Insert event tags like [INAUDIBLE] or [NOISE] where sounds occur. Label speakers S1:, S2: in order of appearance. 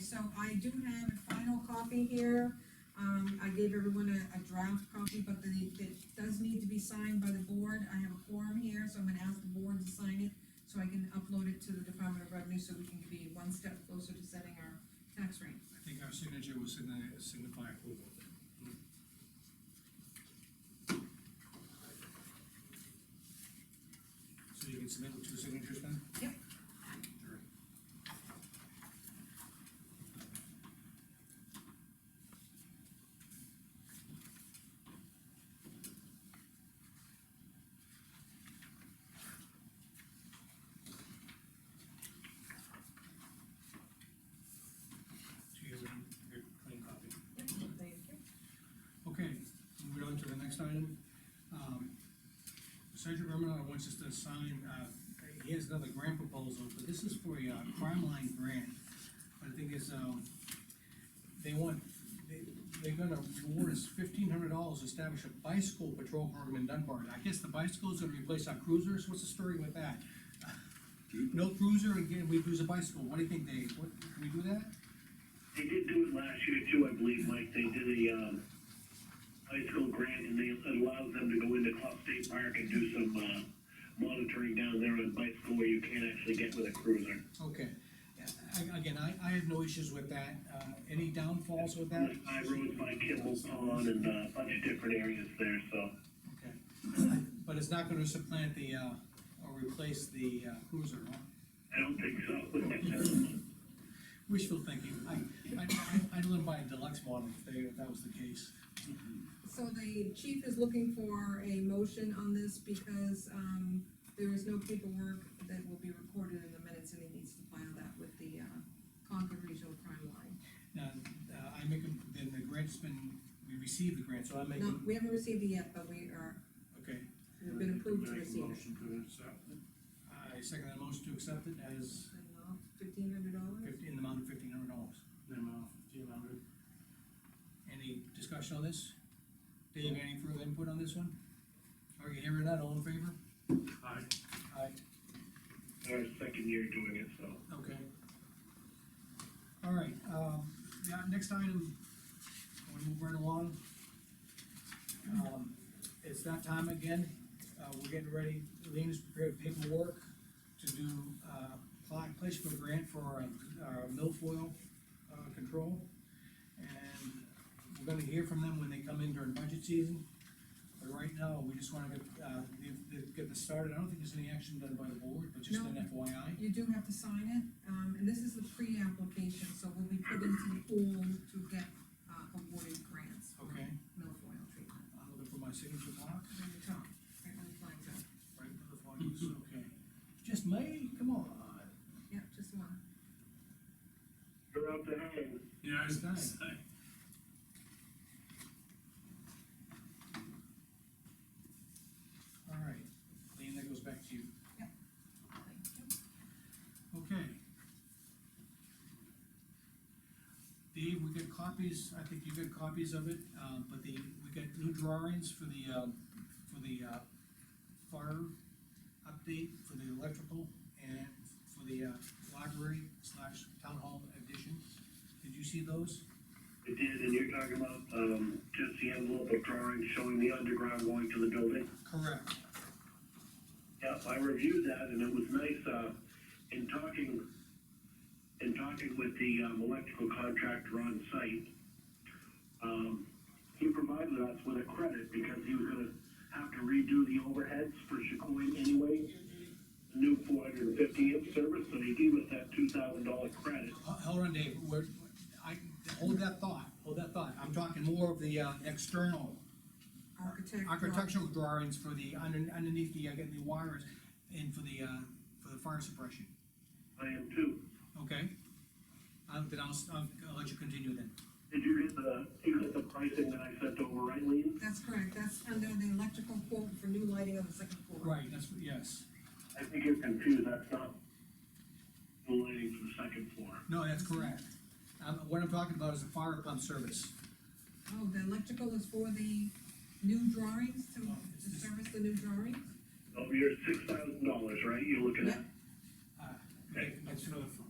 S1: so I do have a final copy here. Um, I gave everyone a, a draft copy, but the, it does need to be signed by the board. I have a quorum here, so I'm gonna ask the board to sign it so I can upload it to the Department of Revenue so we can be one step closer to setting our tax rate.
S2: I think our signature will signi- signify approval. So you can submit with two signatures then?
S1: Yep.
S2: All right. Do you have a, your clean copy?
S1: Yep, thank you.
S2: Okay, moving on to the next item. Um, Sergeant Romanar wants us to sign, uh, he has another grant proposal, but this is for a uh, crime line grant. But the thing is, um, they want, they, they're gonna reward us fifteen hundred dollars to establish a bicycle patrol program in Dunbar. I guess the bicycles are gonna replace our cruisers, what's the story with that? [LAUGHS] No cruiser, again, we use a bicycle, what do you think, Dave? What, can we do that?
S3: They did do it last year too, I believe, Mike, they did a, um, bicycle grant and they allowed them to go into Clough State Park and do some, uh, monitoring down there on bicycle where you can't actually get with a cruiser.
S2: Okay, I- again, I, I have no issues with that, uh, any downfalls with that?
S3: Like High roads by Kimball Pond and, uh, a bunch of different areas there, so.
S2: Okay, [COUGHS] but it's not gonna supplant the, uh, or replace the uh, cruiser, huh?
S3: I don't think so.
S2: Wishful thinking, I, I, I- I'd live by a deluxe model if they, if that was the case.
S1: So the chief is looking for a motion on this because, um, there is no paperwork that will be recorded in the minutes and he needs to file that with the, uh, Concord Regional Crime Line.
S2: Now, uh, I make, a- then the grant's been, we received the grant, so I make,
S1: No,
S2: a-
S1: we haven't received it yet, but we are,
S2: okay.
S1: we've been approved to receive it.
S2: I second that motion to accept it as
S1: Fifteen hundred dollars?
S2: fifteen, in the amount of fifteen hundred dollars. Any discussion on this? Dave, any further input on this one? Are you hearing that, all in favor? Aye.
S3: Our second year doing it, so.
S2: Okay. All right, um, yeah, next item, we move right along. Um, it's that time again, uh, we're getting ready, Lean has prepared paperwork to do, uh, apply, place for grant for our, our milfoil, uh, control. And we're gonna hear from them when they come in during budget season. But right now, we just wanna get, uh, get, get this started, I don't think there's any action done by the board, but just an FYI.
S1: You do have to sign it, um, and this is the pre-application, so we'll be put into the pool to get, uh, awarded grants. for
S2: Okay.
S1: Milfoil treatment,
S2: I'm looking for my signature block,
S1: on the top, right on the flag top.
S2: right for the font, it's okay. Just me, come on.
S1: Yeah, just one.
S3: You're up to hand.
S4: Yeah, I was gonna say.
S2: All right, Lean, that goes back to you.
S1: Thank
S2: Okay. Dave, we got copies, I think you got copies of it, um, but the, we got new drawings for the, um, for the, uh, fire update, for the electrical, and for the, uh, library slash town hall addition. Did you see those?
S3: It did, and you're talking about, um, just the envelope of drawings showing the underground going to the building?
S2: Correct.
S3: Yep, I reviewed that and it was nice, uh, in talking, in talking with the, um, electrical contractor on site. Um, he provided us with a credit because he was gonna have to redo the overheads for Chicoine anyway. New four hundred and fifty amp service, so he gave us that two thousand dollar credit.
S2: Ho- Hold on, Dave, we're, I, hold that thought, hold that thought, I'm talking more of the, uh, external
S1: Architect.
S2: architectural drawings for the, under- underneath the, uh, getting the wires, and for the, uh, for the fire suppression,
S3: I am too.
S2: okay? Um, then I'll, s- I'll, I'll let you continue then.
S3: Did you get the, you got the pricing that I sent over, right, Lean?
S1: That's correct, that's under the electrical quote for new lighting on the second floor.
S2: Right, that's, what- yes,
S3: I think you're confused, that's not the lighting for the second floor.
S2: no, that's correct. Um, what I'm talking about is the fire pump service,
S1: Oh, the electrical is for the new drawings, to,
S2: Oh, it's
S1: to
S2: just-
S1: service the new drawings?
S3: Oh, you're six thousand dollars, right, you're looking at?
S2: uh, that's for the